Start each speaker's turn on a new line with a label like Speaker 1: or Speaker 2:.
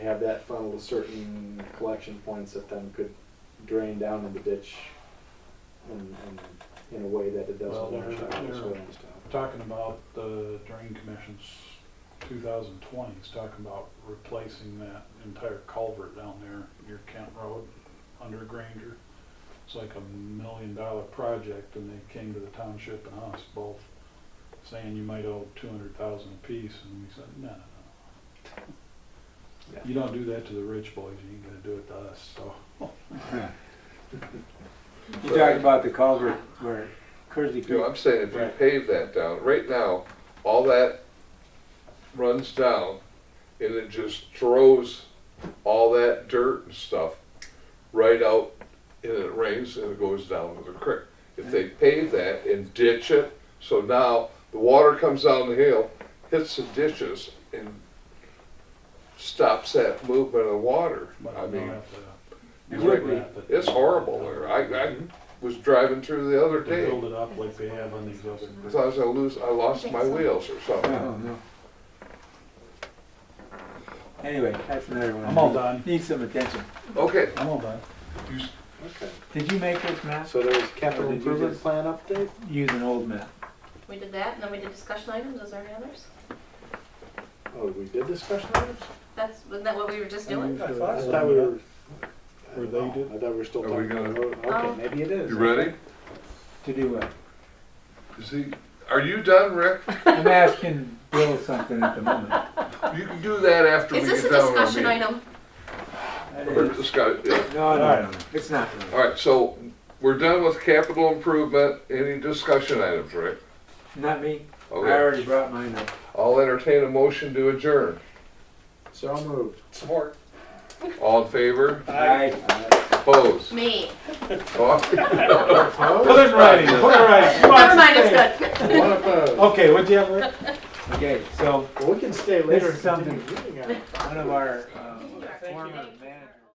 Speaker 1: have that funnel to certain collection points that then could drain down in the ditch and, and in a way that it
Speaker 2: Well,
Speaker 1: doesn't
Speaker 2: there-
Speaker 1: wash out the
Speaker 2: there-
Speaker 1: soil and stuff.
Speaker 2: Talking about the drain commission's 2020, is talking about replacing that entire culvert down there near Kent Road under Granger. It's like a million dollar project and they came to the township and us both saying you might owe 200,000 apiece and we said, no, no, no.
Speaker 1: Yeah.
Speaker 2: You don't do that to the rich boys, you ain't gonna do it to us, so.
Speaker 3: You talked about the culvert where Kersey
Speaker 4: No,
Speaker 3: Creek,
Speaker 4: I'm saying if you
Speaker 2: Right.
Speaker 4: pave that down, right now, all that runs down and it just throws all that dirt and stuff right out and it rains and it goes down to the creek. If they pave that and ditch it, so now the water comes down the hill, hits the ditches and stops that movement of water.
Speaker 2: but
Speaker 4: I
Speaker 2: they'll
Speaker 4: mean,
Speaker 2: have to-
Speaker 3: It
Speaker 2: they'll
Speaker 3: would be.
Speaker 2: have to-
Speaker 4: it's horrible there. I, I was driving through the other
Speaker 2: They
Speaker 4: day.
Speaker 2: build it up like they have on these other.
Speaker 4: So I was gonna lose, I lost my wheels or something.
Speaker 3: anyway, that's another one.
Speaker 2: I'm all done.
Speaker 3: Needs some attention.
Speaker 4: Okay,
Speaker 2: I'm all done.
Speaker 1: Okay,
Speaker 3: Did you make this map?
Speaker 1: so there's capital
Speaker 3: Did you
Speaker 1: improvement
Speaker 3: just-
Speaker 1: plan update?
Speaker 3: Use an old map.
Speaker 5: We did that, and then we did discussion items, is there any others?
Speaker 1: Oh, we did discussion items?
Speaker 5: That's, wasn't that what we were just doing?
Speaker 1: I thought we were. I
Speaker 2: Or
Speaker 1: don't
Speaker 2: they
Speaker 1: know.
Speaker 2: did?
Speaker 1: I thought we were still
Speaker 4: Are we
Speaker 1: talking about,
Speaker 4: gonna-
Speaker 1: road. okay,
Speaker 5: Um,
Speaker 1: maybe it is.
Speaker 4: you ready?
Speaker 3: To do what?
Speaker 4: Is he, are you done, Rick?
Speaker 3: I'm asking Bill something at the moment.
Speaker 4: You can do that after we
Speaker 5: Is this a
Speaker 4: get done with
Speaker 5: discussion
Speaker 4: our meeting.
Speaker 5: item?
Speaker 3: That
Speaker 4: Or
Speaker 3: is-
Speaker 4: discuss- yeah.
Speaker 3: No, no, no, it's not.
Speaker 4: All right, so we're done with capital improvement. Any discussion items, Rick?
Speaker 3: Not me. I
Speaker 4: Okay,
Speaker 3: already brought mine up.
Speaker 4: I'll entertain a motion to adjourn.
Speaker 1: So moved.
Speaker 6: Support.
Speaker 4: All in favor?
Speaker 3: I,
Speaker 4: Opposed?
Speaker 5: Me.
Speaker 4: Oh,
Speaker 2: Put it in writing, put it in writing. Come on,
Speaker 5: Never mind,
Speaker 2: stay.
Speaker 5: it's good.
Speaker 1: Oh, One opposed.
Speaker 2: Okay, what do you have, Rick?
Speaker 3: okay, so
Speaker 1: Well, we can stay later
Speaker 3: is
Speaker 1: and continue reading on it.
Speaker 2: uh,
Speaker 3: one of our, um,
Speaker 5: You are
Speaker 3: former
Speaker 5: kidding.
Speaker 3: managers